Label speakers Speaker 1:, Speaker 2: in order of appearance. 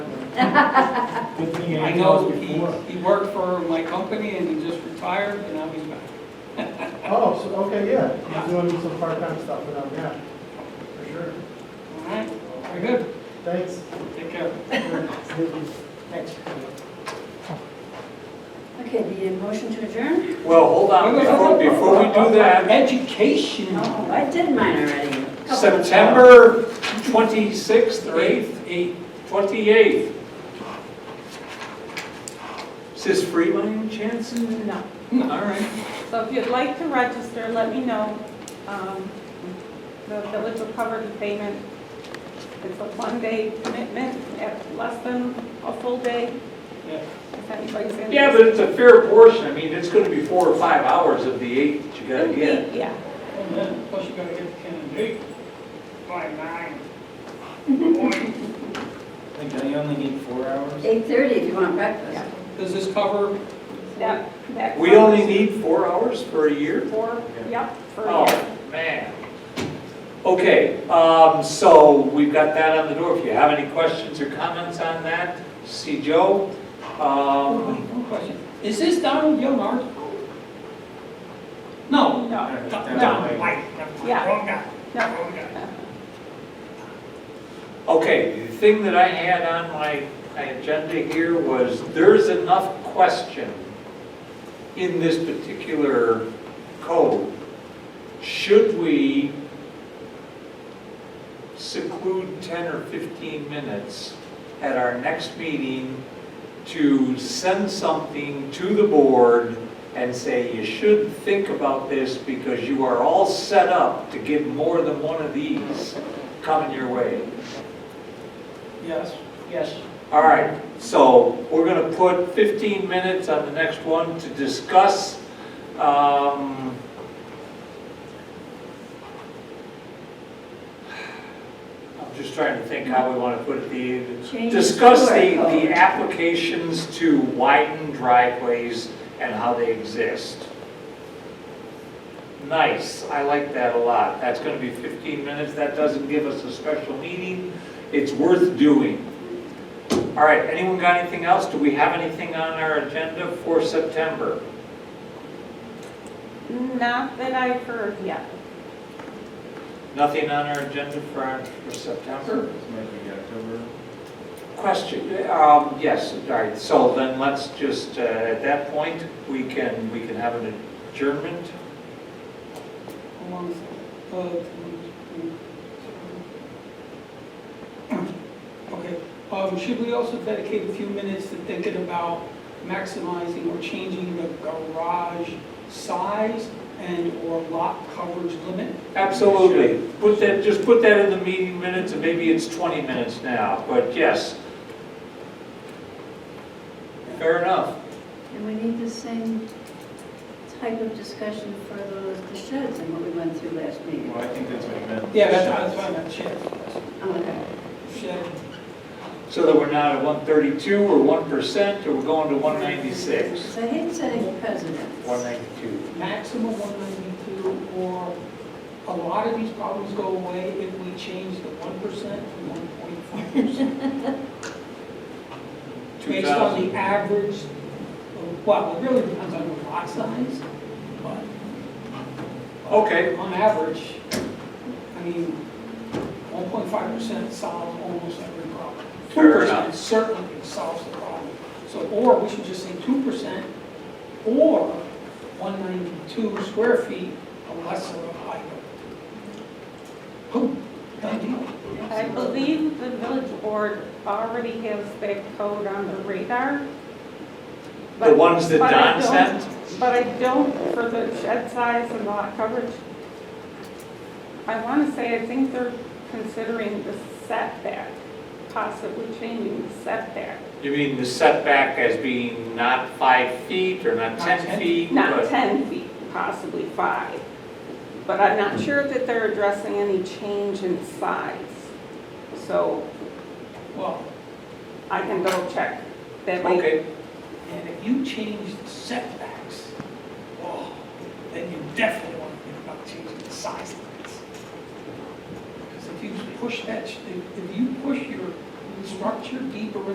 Speaker 1: Good thing
Speaker 2: I
Speaker 1: anything
Speaker 2: know
Speaker 1: else
Speaker 2: he,
Speaker 1: before.
Speaker 2: he worked for my company and he just retired and now he's back.
Speaker 1: Oh, so, okay, yeah,
Speaker 2: Yeah.
Speaker 1: he's doing some part-time stuff with them, yeah, for sure.
Speaker 2: All right, very good.
Speaker 1: Thanks.
Speaker 2: Take care. Thanks.
Speaker 3: Okay, the motion to adjourn?
Speaker 4: Well, hold on, before, before we do that,
Speaker 2: Education.
Speaker 3: Oh, I did mine already.
Speaker 4: September 26th or 8th, 8, 28th. Is this free by any chance?
Speaker 5: No.
Speaker 4: All right,
Speaker 5: So if you'd like to register, let me know. Um, The village will cover the payment. It's a one-day commitment, at less than a full day,
Speaker 2: Yeah.
Speaker 5: if anybody's interested.
Speaker 4: yeah, but it's a fair portion, I mean, it's gonna be four or five hours of the eight that you gotta
Speaker 5: It'll be-
Speaker 4: get.
Speaker 5: Yeah.
Speaker 2: And then, plus you gotta get the candidate by nine.
Speaker 6: Like, I only need four hours?
Speaker 3: Eight thirty if you want breakfast.
Speaker 2: Does this cover,
Speaker 5: That, that.
Speaker 4: We only need four hours for a year?
Speaker 5: Four, yep, for a year.
Speaker 4: Oh, man. Okay, um, so we've got that on the door. If you have any questions or comments on that, see Joe.
Speaker 2: oh,
Speaker 4: Um,
Speaker 2: wait, one question. Is this Donald Young art? No.
Speaker 5: No,
Speaker 2: Donald White. Never mind.
Speaker 5: Yeah.
Speaker 2: Wrong guy.
Speaker 5: no.
Speaker 2: Wrong guy.
Speaker 4: Okay, the thing that I had on my, my agenda here was, there's enough question in this particular code. Should we seclude 10 or 15 minutes at our next meeting to send something to the board and say, you should think about this because you are all set up to get more than one of these coming your way?
Speaker 2: Yes, yes.
Speaker 4: All right, so we're going to put 15 minutes on the next one to discuss um, I'm just trying to think how we want to put it, the,
Speaker 3: Change
Speaker 4: discuss
Speaker 3: to our
Speaker 4: the,
Speaker 3: code.
Speaker 4: the applications to widen driveways and how they exist. Nice, I like that a lot. That's going to be 15 minutes, that doesn't give us a special meeting, it's worth doing. All right, anyone got anything else? Do we have anything on our agenda for September?
Speaker 5: Not that I've heard yet.
Speaker 4: Nothing on our agenda for, our- for September?
Speaker 6: This might be October.
Speaker 4: Question, um, yes, all right, so then let's just, uh, at that point, we can, we can have an adjournment.
Speaker 2: Along, uh, Okay, um, should we also dedicate a few minutes to thinking about maximizing or changing the garage size and or lot coverage limit?
Speaker 4: Absolutely, put that, just put that in the meeting minutes, and maybe it's 20 minutes now, but yes. Fair enough.
Speaker 3: And we need the same type of discussion for those, the sheds and what we went through last meeting.
Speaker 6: Well, I think that's what you meant.
Speaker 2: Yeah, that's, that's what I meant, shed,
Speaker 3: Oh, okay.
Speaker 2: shed.
Speaker 4: So that we're not at 132 or 1%, or we're going to 196?
Speaker 3: So I hate setting precedents.
Speaker 4: 192.
Speaker 2: maximum 192, or a lot of these problems go away if we change the 1% to 1.5%. Based on
Speaker 4: 2000.
Speaker 2: the average, of- well, it really depends on the lot size, but
Speaker 4: Okay,
Speaker 2: on average, I mean, 1.5% solves almost every problem.
Speaker 4: Fair enough.
Speaker 2: 2% Certainly solves the problem. So, or we should just say 2%, or 192 square feet, a lesser of height. Boom, done deal.
Speaker 5: I believe the village board already has that code on the radar.
Speaker 4: the
Speaker 5: but-
Speaker 4: ones that
Speaker 5: but I
Speaker 4: Don
Speaker 5: don't-
Speaker 4: sent?
Speaker 5: But I don't for the shed size and lot coverage. I want to say, I think they're considering the setback, possibly changing the setback.
Speaker 4: You mean the setback as being not five feet or not
Speaker 2: Not
Speaker 4: 10
Speaker 2: 10.
Speaker 4: feet?
Speaker 5: Not
Speaker 4: but-
Speaker 5: 10 feet, possibly five. But I'm not sure that they're addressing any change in size. So
Speaker 2: Well,
Speaker 5: I can double check. That might
Speaker 4: Okay,
Speaker 2: and if you change the setbacks, oh, then you definitely want to think about changing the size limits. Because if you push that, if if you push your structure deeper